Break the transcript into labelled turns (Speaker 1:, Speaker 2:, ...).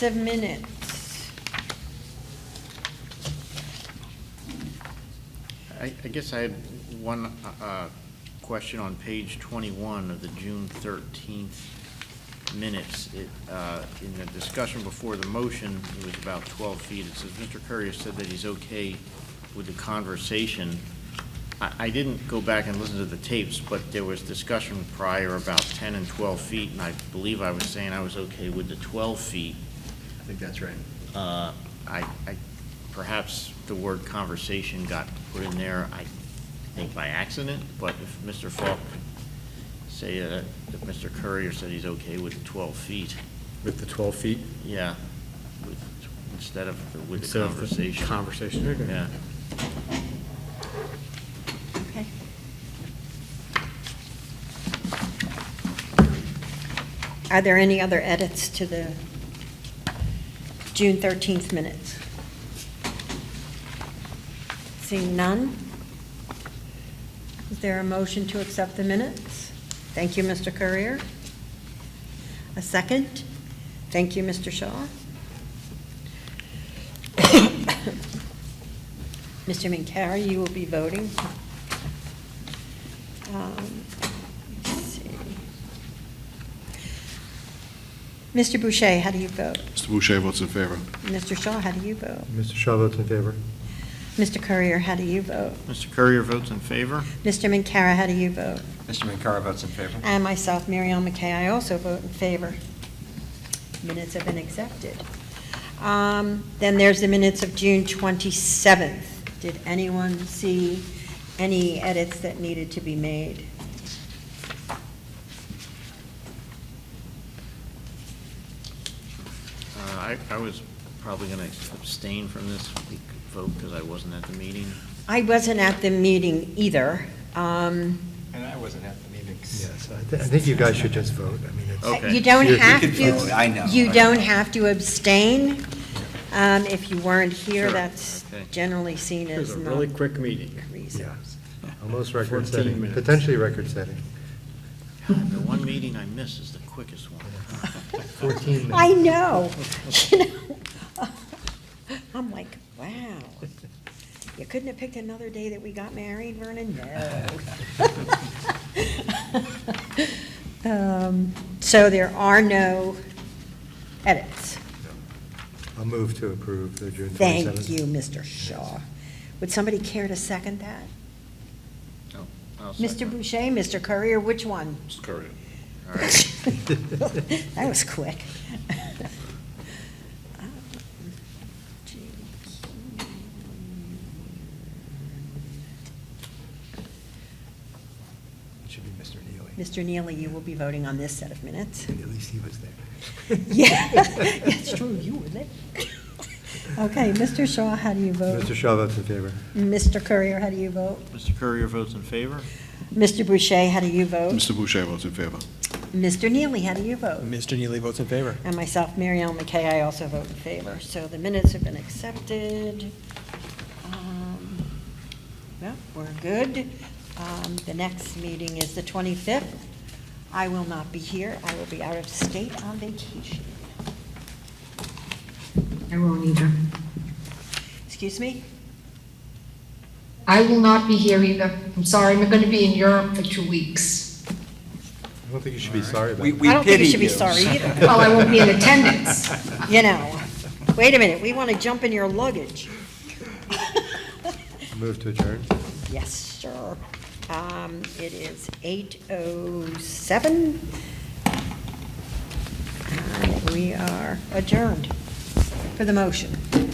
Speaker 1: The minutes.
Speaker 2: I, I guess I had one, uh, uh, question on page twenty-one of the June thirteenth minutes. It, uh, in the discussion before the motion, it was about twelve feet. It says, Mr. Courier said that he's okay with the conversation. I, I didn't go back and listen to the tapes, but there was discussion prior about ten and twelve feet, and I believe I was saying I was okay with the twelve feet.
Speaker 3: I think that's right.
Speaker 2: Uh, I, I, perhaps the word conversation got put in there, I think by accident, but if Mr. Falk, say, uh, if Mr. Courier said he's okay with 12 feet,
Speaker 4: With the 12 feet?
Speaker 2: yeah, with- instead of the- with
Speaker 4: instead
Speaker 2: the
Speaker 4: of the
Speaker 2: conversation.
Speaker 4: Conversation. Okay.
Speaker 2: Yeah.
Speaker 1: Okay. Are there any other edits to the June 13th minutes? Seeing none? Is there a motion to accept the minutes? Thank you, Mr. Courier. A second? Thank you, Mr. Shaw. Mr. Minkara, you will be voting. Um, let's see. Mr. Boucher, how do you vote?
Speaker 5: Mr. Boucher votes in favor.
Speaker 1: Mr. Shaw, how do you vote?
Speaker 6: Mr. Shaw votes in favor.
Speaker 1: Mr. Courier, how do you vote?
Speaker 2: Mr. Courier votes in favor?
Speaker 1: Mr. Minkara, how do you vote?
Speaker 3: Mr. Minkara votes in favor.
Speaker 1: And myself, Mary Ellen McKay, I also vote in favor. Minutes have been accepted. Um, Then there's the minutes of June 27th. Did anyone see any edits that needed to be made?
Speaker 2: Uh, I, I was probably going to abstain from this vote because I wasn't at the meeting.
Speaker 1: I wasn't at the meeting either. Um,
Speaker 3: And I wasn't at the meetings.
Speaker 6: Yes, I thi- I think you guys should just vote. I mean, it's,
Speaker 2: Okay.
Speaker 1: You don't
Speaker 6: You- you
Speaker 1: have
Speaker 3: could
Speaker 1: to.
Speaker 3: vote, I know, I
Speaker 1: You
Speaker 3: know.
Speaker 1: don't have to abstain. Um, If you weren't here,
Speaker 2: Sure,
Speaker 1: that's
Speaker 2: okay.
Speaker 1: generally seen
Speaker 4: It was
Speaker 1: as
Speaker 4: a
Speaker 1: not.
Speaker 4: really quick meeting.
Speaker 6: yeah,
Speaker 1: reasons.
Speaker 6: almost
Speaker 4: 14
Speaker 6: record setting,
Speaker 4: minutes.
Speaker 6: potentially record setting.
Speaker 2: God, the one meeting I miss is the quickest one.
Speaker 6: 14 minutes.
Speaker 1: I know, you know. I'm like, wow, you couldn't have picked another day that we got married, Vernon? No. Um, So there are no edits.
Speaker 6: I'll move to approve the June 27th.
Speaker 1: Thank you, Mr. Shaw. Would somebody care to second that?
Speaker 2: Oh, I'll
Speaker 1: Mr.
Speaker 2: second.
Speaker 1: Boucher, Mr. Courier, which one?
Speaker 5: Mr. Courier.
Speaker 2: All right.
Speaker 1: That was quick.
Speaker 3: It should be Mr. Neely.
Speaker 1: Mr. Neely, you will be voting on this set of minutes.
Speaker 6: At least he was there.
Speaker 1: Yeah, it's true, you were there. Okay, Mr. Shaw, how do you vote?
Speaker 6: Mr. Shaw votes in favor.
Speaker 1: Mr. Courier, how do you vote?
Speaker 2: Mr. Courier votes in favor?
Speaker 1: Mr. Boucher, how do you vote?
Speaker 5: Mr. Boucher votes in favor.
Speaker 1: Mr. Neely, how do you vote?
Speaker 7: Mr. Neely votes in favor.
Speaker 1: And myself, Mary Ellen McKay, I also vote in favor. So the minutes have been accepted. Um, Well, we're good. Um, The next meeting is the 25th. I will not be here. I will be out of state on vacation.
Speaker 8: I won't either.
Speaker 1: Excuse me?
Speaker 8: I will not be here either. I'm sorry, I'm going to be in Europe for two weeks.
Speaker 6: I don't think you should be sorry about
Speaker 3: We,
Speaker 6: it.
Speaker 3: we
Speaker 1: I don't think
Speaker 3: pity
Speaker 1: you should be
Speaker 3: you.
Speaker 1: sorry either.
Speaker 8: Well, Oh, I won't be in attendance.
Speaker 1: You know, wait a minute, we want to jump in your luggage.
Speaker 6: Move to adjourn.
Speaker 1: Yes, sir. Um, It is 8:07. And we are adjourned for the motion.